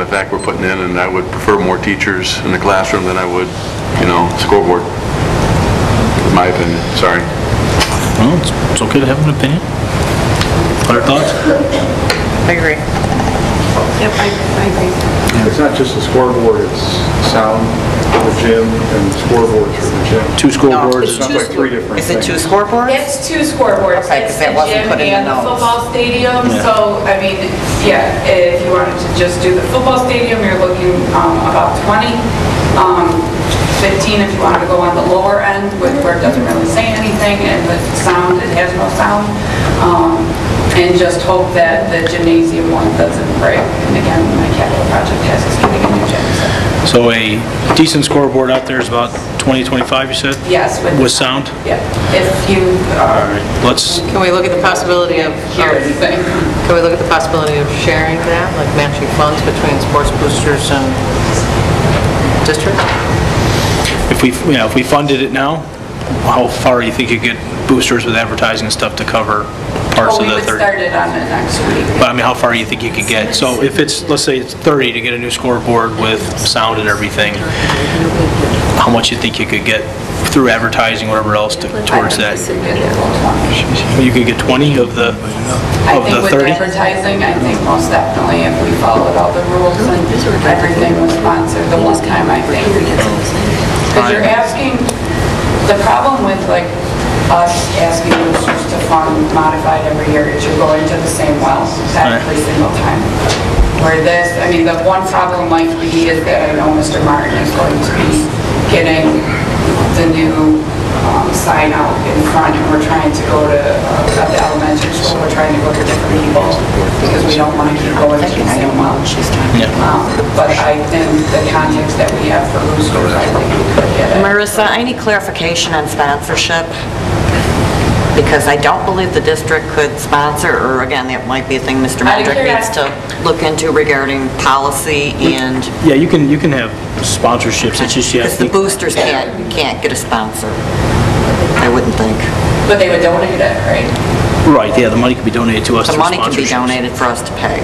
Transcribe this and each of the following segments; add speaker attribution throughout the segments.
Speaker 1: The fact we're putting in, and I would prefer more teachers in the classroom than I would, you know, scoreboard. My opinion, sorry.
Speaker 2: Well, it's- it's okay to have an opinion. Other thoughts?
Speaker 3: I agree. Yep, I, I agree.
Speaker 4: It's not just the scoreboard, it's sound for the gym and scoreboards for the gym.
Speaker 2: Two
Speaker 4: It's
Speaker 2: scoreboards.
Speaker 4: not like three different
Speaker 3: Is it
Speaker 4: things.
Speaker 3: two scoreboards?
Speaker 5: It's two scoreboards.
Speaker 3: Okay, 'cause that wasn't put in the
Speaker 5: It's the gym and the
Speaker 3: notes.
Speaker 5: football stadium, so, I mean, yeah, if you wanted to just do the football stadium, you're looking um, about 20, um, 15 if you wanted to go on the lower end, with where it doesn't really say anything, and the sound, it has no sound, um, and just hope that the gymnasium one doesn't break. And again, my capital project has us getting a new gym, so,
Speaker 2: So a decent scoreboard out there is about 20, 25, you said?
Speaker 5: yes, with,
Speaker 2: With sound?
Speaker 5: yeah, if you are
Speaker 2: Let's,
Speaker 3: Can we look at the possibility of,
Speaker 5: here, anything.
Speaker 3: can we look at the possibility of sharing that, like matching funds between sports boosters and district?
Speaker 2: if we, you know, if we funded it now, how far do you think you get boosters with advertising and stuff to cover parts of
Speaker 5: Oh, we
Speaker 2: the 30?
Speaker 5: would start it on the next week.
Speaker 2: But I mean, how far do you think you could get? So if it's, let's say it's 30 to get a new scoreboard with sound and everything, how much you think you could get through advertising, whatever else, to- towards that? Oh, You could get 20 of the,
Speaker 5: I
Speaker 2: of
Speaker 5: think
Speaker 2: the
Speaker 5: with
Speaker 2: 30?
Speaker 5: advertising, I think most definitely if we followed all the rules and everything was sponsored, the one time I think. Because you're asking, the problem with like us asking users to fund modified every year is you're going to the same well every single time. Where this, I mean, the one problem might be is that I know Mr. Martin is going to be getting the new um, sign out in front, and we're trying to go to, uh, at the elementary school, we're trying to go to different people, because we don't want to keep going to the same well. Um, But I think the context that we have for boosters, I think we could get it.
Speaker 6: Marissa, I need clarification on sponsorship, because I don't believe the district could sponsor, or again, that might be a thing Mr.
Speaker 5: Out of
Speaker 6: Mendrick needs to look into regarding policy and,
Speaker 2: Yeah, you can, you can have sponsorships, it's just you have
Speaker 6: because the
Speaker 2: to...
Speaker 6: boosters can't, can't get a sponsor, I wouldn't think.
Speaker 5: But they would donate it, right?
Speaker 2: Right, yeah, the money can be donated to us
Speaker 6: The
Speaker 2: through
Speaker 6: money can be
Speaker 2: sponsorships.
Speaker 6: donated for us to pay.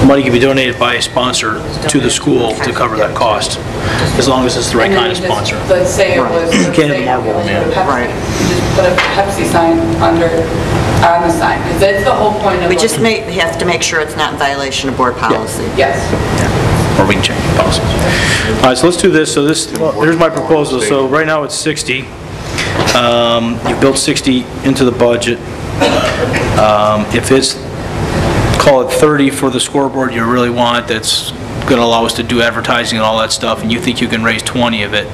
Speaker 2: The Money can be donated by a sponsor to the school to cover that cost, as long as it's the right
Speaker 5: And
Speaker 2: kind
Speaker 5: then
Speaker 2: of
Speaker 5: you just-
Speaker 2: sponsor.
Speaker 5: Let's say it was, let's
Speaker 2: Can't have
Speaker 5: say
Speaker 2: a
Speaker 5: it
Speaker 2: Marvel
Speaker 5: was
Speaker 2: Man.
Speaker 5: Pepsi.
Speaker 6: Right.
Speaker 5: You Just put a Pepsi sign under, on the sign, because that's the whole point of.
Speaker 6: We just
Speaker 5: like-
Speaker 6: may, have to make sure it's not in violation of board policy.
Speaker 5: Yes.
Speaker 2: or we can change the policies. All right, so let's do this, so this, well, here's my proposal, so right now it's 60. Um, You built 60 into the budget. Um, If it's, call it 30 for the scoreboard you really want, that's going to allow us to do advertising and all that stuff, and you think you can raise 20 of it,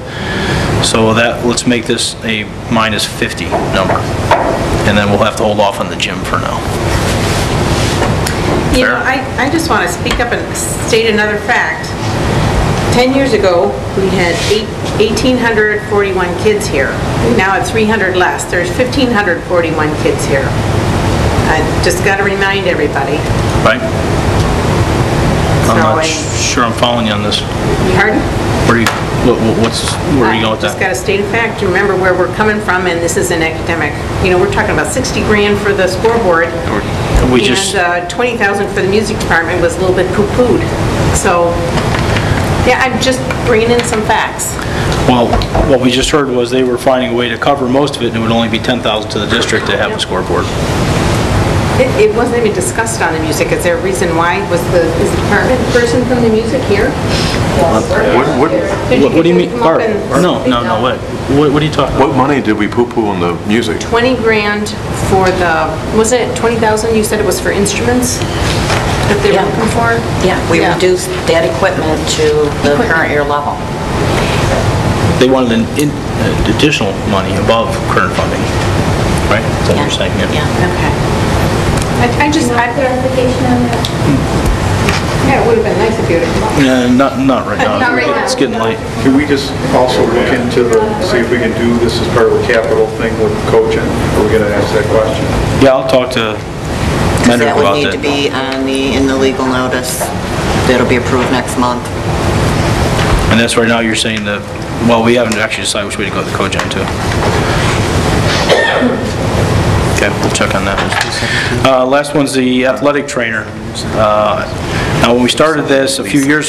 Speaker 2: so that, let's make this a minus 50 number, and then we'll have to hold off on the gym for now.
Speaker 7: You
Speaker 2: Fair.
Speaker 7: know, I, I just want to speak up and state another fact. 10 years ago, we had eight- 1,841 kids here. We now have 300 less. There's 1,541 kids here. I just got to remind everybody.
Speaker 2: Right? I'm not
Speaker 7: So I-
Speaker 2: sure I'm following you on this.
Speaker 7: Pardon?
Speaker 2: Where you, what- what- what's, where are you going with
Speaker 7: Just got
Speaker 2: that?
Speaker 7: to state a fact. Remember where we're coming from, and this is an academic. You know, we're talking about 60 grand for the scoreboard.
Speaker 2: We just-
Speaker 7: And uh, 20,000 for the music department was a little bit poo-pooed. So, yeah, I'm just bringing in some facts.
Speaker 2: Well, what we just heard was they were finding a way to cover most of it, and it would only be 10,000 to the district to have a scoreboard.
Speaker 7: It it wasn't even discussed on the music. Is there a reason why? Was the, is the department person from the music here?
Speaker 1: What, what,
Speaker 7: Did
Speaker 2: What what do you
Speaker 7: did
Speaker 2: mean?
Speaker 7: come
Speaker 2: Art?
Speaker 7: up and
Speaker 2: No,
Speaker 7: speak
Speaker 2: no, no,
Speaker 7: up?
Speaker 2: what? What what are you talking about?
Speaker 1: what money did we poo-poo on the music?
Speaker 7: 20 grand for the, wasn't it 20,000? You said it was for instruments that they were
Speaker 6: Yeah.
Speaker 7: looking for?
Speaker 6: We reduced that equipment to the current year level.
Speaker 2: They wanted an in- uh, additional money above current funding, right? Is that what you're saying?
Speaker 6: Yeah.
Speaker 7: Okay. I- I just, I,
Speaker 8: clarification on that?
Speaker 7: yeah, it would have been nice if you would have come
Speaker 2: Uh,
Speaker 7: up.
Speaker 2: Not, not right now.
Speaker 7: Not right now.
Speaker 2: It's getting late.
Speaker 4: Can we just also look into the, see if we can do this as part of the capital thing with coaching? Are we going to ask that question?
Speaker 2: Yeah, I'll talk to Mendrick
Speaker 6: That would
Speaker 2: about
Speaker 6: need to
Speaker 2: that.
Speaker 6: be on the, in the legal notice. That'll be approved next month.
Speaker 2: And that's right now you're saying that, well, we haven't actually decided which way to go with the cogen too. Okay, we'll check on that. Uh, Last one's the athletic trainer. Uh, Now, when we started this a few years